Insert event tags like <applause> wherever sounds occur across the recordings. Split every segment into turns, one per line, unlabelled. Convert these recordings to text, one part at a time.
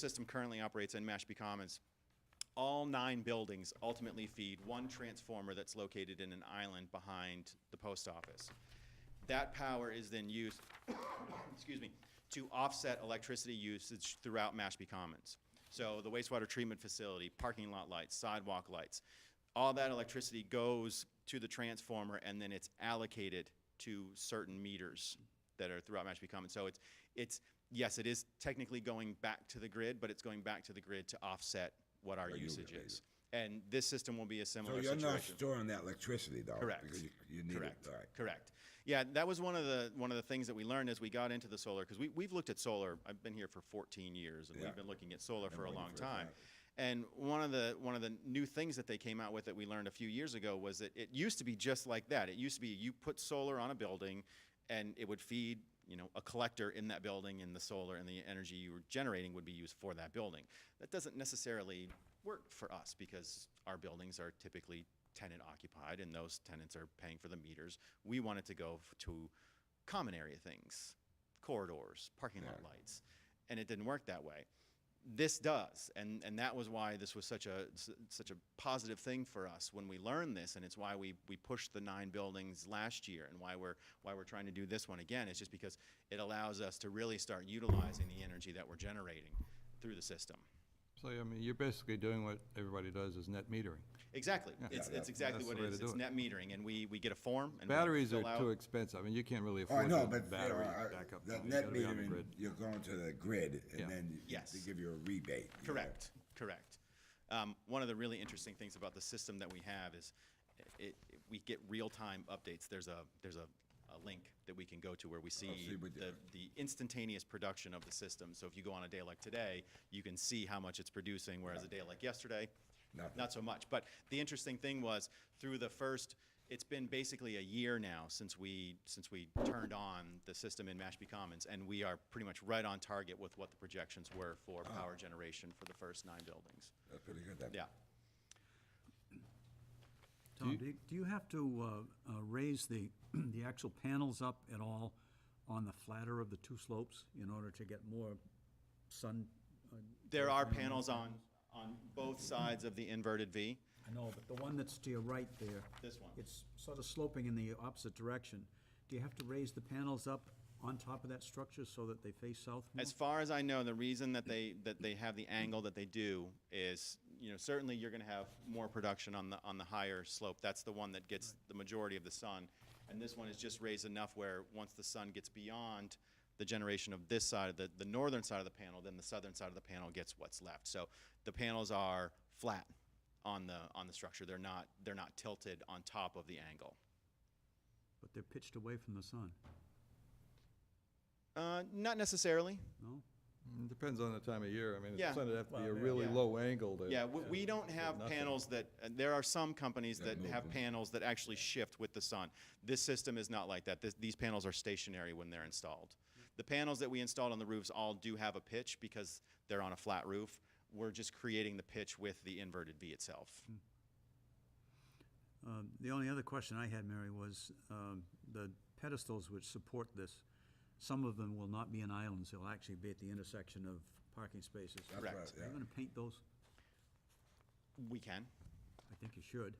system currently operates in Mashpee Commons. All nine buildings ultimately feed one transformer that's located in an island behind the post office. That power is then used, <coughs> excuse me, to offset electricity usage throughout Mashpee Commons. So the wastewater treatment facility, parking lot lights, sidewalk lights, all that electricity goes to the transformer and then it's allocated to certain meters that are throughout Mashpee Commons. So it's, it's, yes, it is technically going back to the grid, but it's going back to the grid to offset what our usage is. And this system will be a
So
similar
you're not
situation.
storing that electricity though?
Correct.
Because you, you need
Correct.
it, all right.
Correct. Yeah, that was one of the, one of the things that we learned as we got into the solar, because we, we've looked at solar, I've been here for 14 years, and
Yeah.
we've been looking at solar for a
looking
long
for it
time.
forever.
And one of the, one of the new things that they came out with that we learned a few years ago was that it used to be just like that. It used to be you put solar on a building, and it would feed, you know, a collector in that building, and the solar and the energy you were generating would be used for that building. That doesn't necessarily work for us, because our buildings are typically tenant occupied, and those tenants are paying for the meters. We want it to go f- to common area things, corridors, parking lot lights, and it didn't work that way. This does, and and that was why this was such a s- such a positive thing for us when we learned this, and it's why we we pushed the nine buildings last year, and why we're why we're trying to do this one again. It's just because it allows us to really start utilizing the energy that we're generating through the system.
So, I mean, you're basically doing what everybody does is net metering.
Exactly, it's,
Yeah,
it's exactly
that's
what
the way
it
to
is.
do
It's
it.
net metering, and we we get a form. And we
Batteries are
fill out-
too expensive. I mean, you can't really
Oh, I
afford
know,
the
but you know,
battery
I-
backup.
that
You
net
gotta be on the
metering,
grid.
you're going to the grid
Yeah.
and then you-
Yes.
they give you a rebate. you know.
Correct, correct. Um, one of the really interesting things about the system that we have is it, it- we get real-time updates. There's a, there's a, a link that we can go to where we
Oh,
see
see what
the, the instantaneous production of the system. So if you go on a day like today, you can see how much it's producing, whereas a day like yesterday,
Nothing.
not so much. But the interesting thing was through the first, it's been basically a year now since we, since we turned on the system in Mashpee Commons, and we are pretty much right on target with what the projections were for power generation for the first nine buildings.
That's pretty good. that-
Yeah.
Tom, do you- do you have to uh, uh, raise the, <clears throat> the actual panels up at all on the flatter of the two slopes in order to get more sun? uh,
There are panels on, on both sides of the inverted V.
I know, but the one that's to your right there.
This one.
It's sort of sloping in the opposite direction. Do you have to raise the panels up on top of that structure so that they face south more?
As far as I know, the reason that they, that they have the angle that they do is, you know, certainly you're gonna have more production on the, on the higher slope. That's the one that gets the majority of the sun. And this one is just raised enough where, once the sun gets beyond the generation of this side, the, the northern side of the panel, then the southern side of the panel gets what's left. So the panels are flat on the, on the structure. They're not, they're not tilted on top of the angle.
But they're pitched away from the sun,
Uh, not necessarily.
no?
Mm, Depends on the time of year. I mean,
Yeah.
it's gonna have to be a
yeah.
really
Yeah.
low angle to.
Yeah, we, we don't have
nothing.
panels that, uh, there are some companies that
move
have
them.
panels that actually shift with the sun. This system is not like that. This, these panels are stationary when they're installed. The panels that we installed on the roofs all do have a pitch because they're on a flat roof. We're just creating the pitch with the inverted V itself.
Um, The only other question I had, Mary, was um, the pedestals which support this, some of them will not be in islands, they'll actually be at the intersection of parking spaces.
That's
Correct.
right,
Are you
yeah.
gonna paint those?
We can.
I think you should.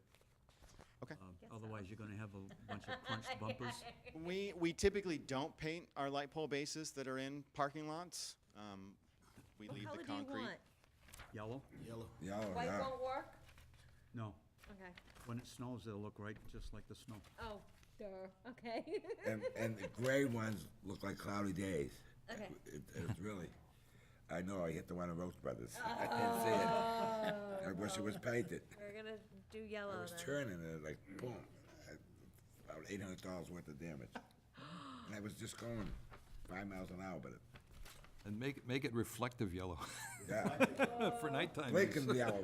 Okay.
Um, Otherwise, you're gonna have a bunch of crunched bumpers.
We, we typically don't paint our light pole bases that are in parking lots. Um, we leave the
What color do
concrete.
you want?
Yellow?
Yeah, oh,
White
yeah.
won't work?
No.
Okay.
When it snows, they'll look right, just like the snow.
Oh, duh, okay. <laughs>
And, and the gray ones look like cloudy days.
Okay.
It, it's really, I know, I hit the one in Rose Brothers. I didn't see it. I wish it was painted.
We're gonna do
I
yellow
was
then.
turning and it like boom, I- about eight hundred dollars worth of damage. And I was just going five miles an hour, but it,
And make, it- make it reflective yellow <laughs>
yeah,
for nighttime. use.
blinking the hour.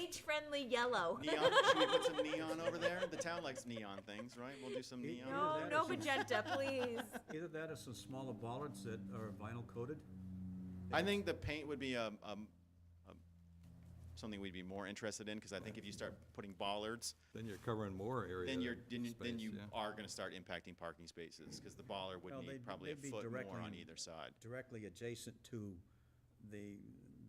Age-friendly yellow.
Neon, should we put some neon over there? The town likes neon things, right? We'll do some neon. over
No,
there.
<laughs>
no magenta, please.
Either that or some smaller bollards that are vinyl coated.
I think the paint would be um, um, um, something we'd be more interested in, because I think if you start putting bollards,
Then you're covering more area.
then you're, then you- then
space,
you
yeah.
are gonna start impacting parking spaces, because the bollard would
Well,
need
they'd-
probably a
they'd be
foot more
directly
on
in-
either side.
Directly adjacent to the,